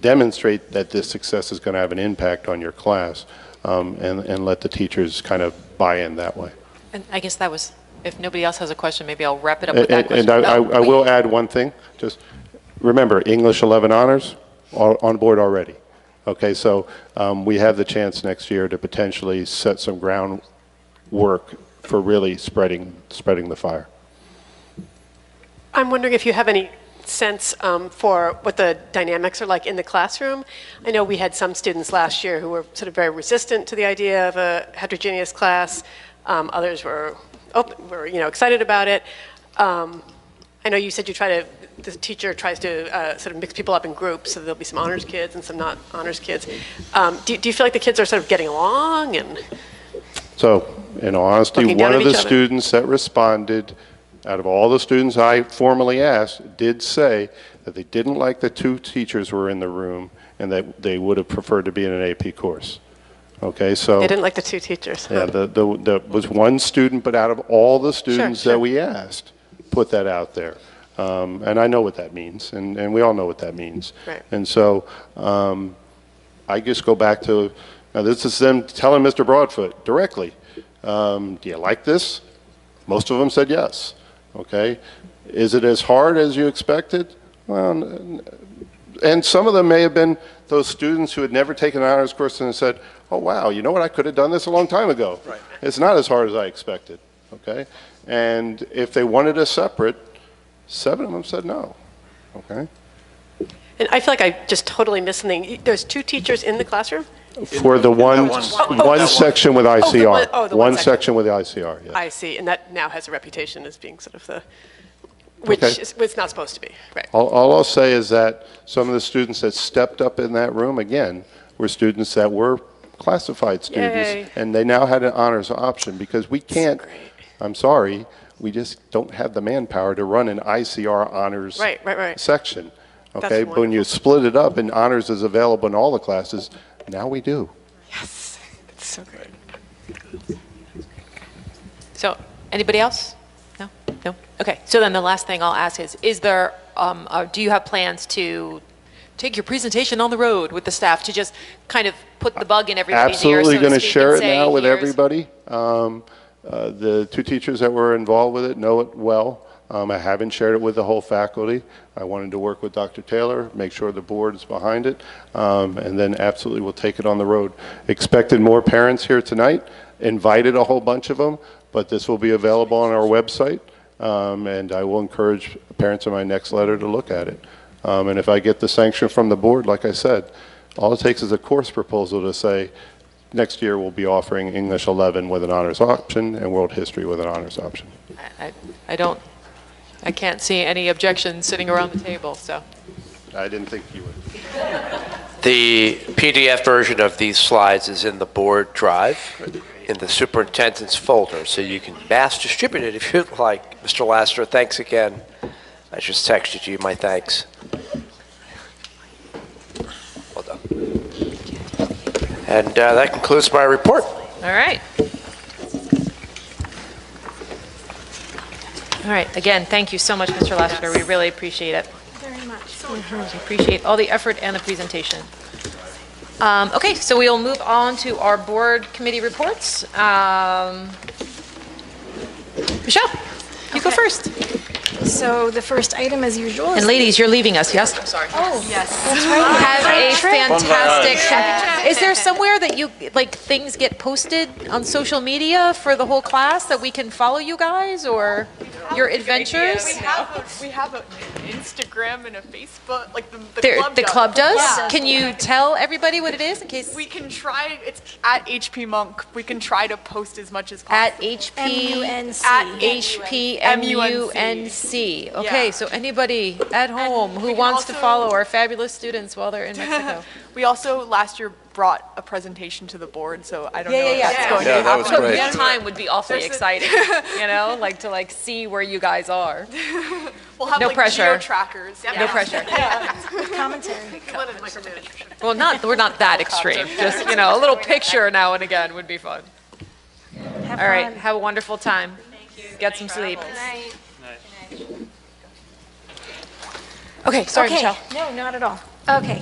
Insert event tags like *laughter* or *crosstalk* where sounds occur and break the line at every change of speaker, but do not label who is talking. demonstrate that this success is going to have an impact on your class um, and, and let the teachers kind of buy in that way.
And I guess that was, if nobody else has a question, maybe I'll wrap it up with that
And
question.
and I I
Oh,
I
wait.
will add one thing, just remember, English 11 honors are on board already. Okay, so um, we have the chance next year to potentially set some groundwork for really spreading, spreading the fire.
I'm wondering if you have any sense um, for what the dynamics are like in the classroom. I know we had some students last year who were sort of very resistant to the idea of a heterogeneous class. Um, others were open, were you know excited about it. Um, I know you said you try to the teacher tries to uh, sort of mix people up in groups, so there'll be some honors kids and some not honors kids. Um, do, do you feel like the kids are sort of getting along and?
So, in all honesty,
Looking down
one
at
of the
each other.
students that responded, out of all the students I formally asked, did say that they didn't like the two teachers were in the room and that they would have preferred to be in an AP course. Okay, so.
They didn't like the two teachers. huh?
Oh. *laughs* Yeah, the, the, the, was one student, but out of all the students that
sure.
we asked, put that out there. Um, and I know what that means, and, and we all know what that means.
Right.
And so, um, I just go back to, now this is them telling Mr. Broadfoot directly, um, do you like this? Most of them said yes, okay? Is it as hard as you expected? Well, n- and some of them may have been those students who had never taken an honors course and said, "Oh wow, you know what? I could have done this a long time ago. Right. It's not as hard as I expected." Okay, and if they wanted a separate, seven of them said no. Okay,
And I feel like I just totally missed something. There's two teachers in the classroom.
for the one
one-
one,
that one.
section with ICR,
one- oh, the one
one
section.
section with ICR. Yeah.
I see, and that now has a reputation as being sort of the, which
Okay.
is, it's not supposed to be, right?
All, all I'll say is that some of the students that stepped up in that room, again, were students that were classified students.
Yay.
And they now had an honors option because we can't,
great.
I'm sorry, we just don't have the manpower to run an ICR honors
Right, right, right.
section.
That's
Okay, but when you split it up and honors is available in all the classes, now we do.
It's so great.
So, anybody else? No? No? Okay. So then the last thing I'll ask is, is there, um, uh, do you have plans to take your presentation on the road with the staff to just kind of put the bug in everybody's ear, so
absolutely going to
speak,
share
and
it
say,
now with
"Here's-"
everybody. Um, uh, the two teachers that were involved with it know it well. Um, I haven't shared it with the whole faculty. I wanted to work with Dr. Taylor, make sure the board is behind it, um, and then absolutely we'll take it on the road. Expected more parents here tonight, invited a whole bunch of them, but this will be available on our website, um, and I will encourage parents in my next letter to look at it. Um, and if I get the sanction from the board, like I said, all it takes is a course proposal to say, next year we'll be offering English 11 with an honors option and World History with an honors option.
I- I I don't, I can't see any objections sitting around the table, so.
I didn't think you would.
The PDF version of these slides is in the board drive in the superintendent's folder, so you can mass distribute it if you'd like. Mr. Laster, thanks again. I just texted you my thanks. Well done. And uh, that concludes my report.
All right. All right, again, thank you so much, Mr. Lassiter. We really appreciate it. Very much. Appreciate all the effort and the presentation. Um, Okay, so we'll move on to our board committee reports. Um, Michelle, you go
Okay.
first.
So the first item, as usual, is Oh,
And ladies, you're leaving us, yes? I'm sorry. Have a fantastic, is there somewhere that you, like, things get posted on social media for the whole class that we can follow you guys or your
We
adventures?
have, a, we have an Instagram and a Facebook, like the, the
There-
club
The
does.
club does?
Yeah.
Can you tell everybody what it is in case,
We can try, it's at HP Monk. We can try to post as much as
at
possible.
HP?
MUNC.
At
HPMUNC. Okay,
Yeah.
so anybody at home
we
who
can
wants to
also-
follow our fabulous students while they're in
*laughs*
Mexico.
we also last year brought a presentation to the board, so I don't know if that's going
Yeah,
to happen.
But one time would be awfully exciting, you know, like to like see where you guys
*laughs*
are.
We'll have
No
like
pressure.
geo trackers.
No pressure.
commentary.
Well, not, we're not that extreme. Just, you know, a little picture now and again would be fun.
Have
All right,
fun.
have a wonderful time. Get some sleep. Okay, sorry,
okay.
Michelle.
No, not at all. Okay.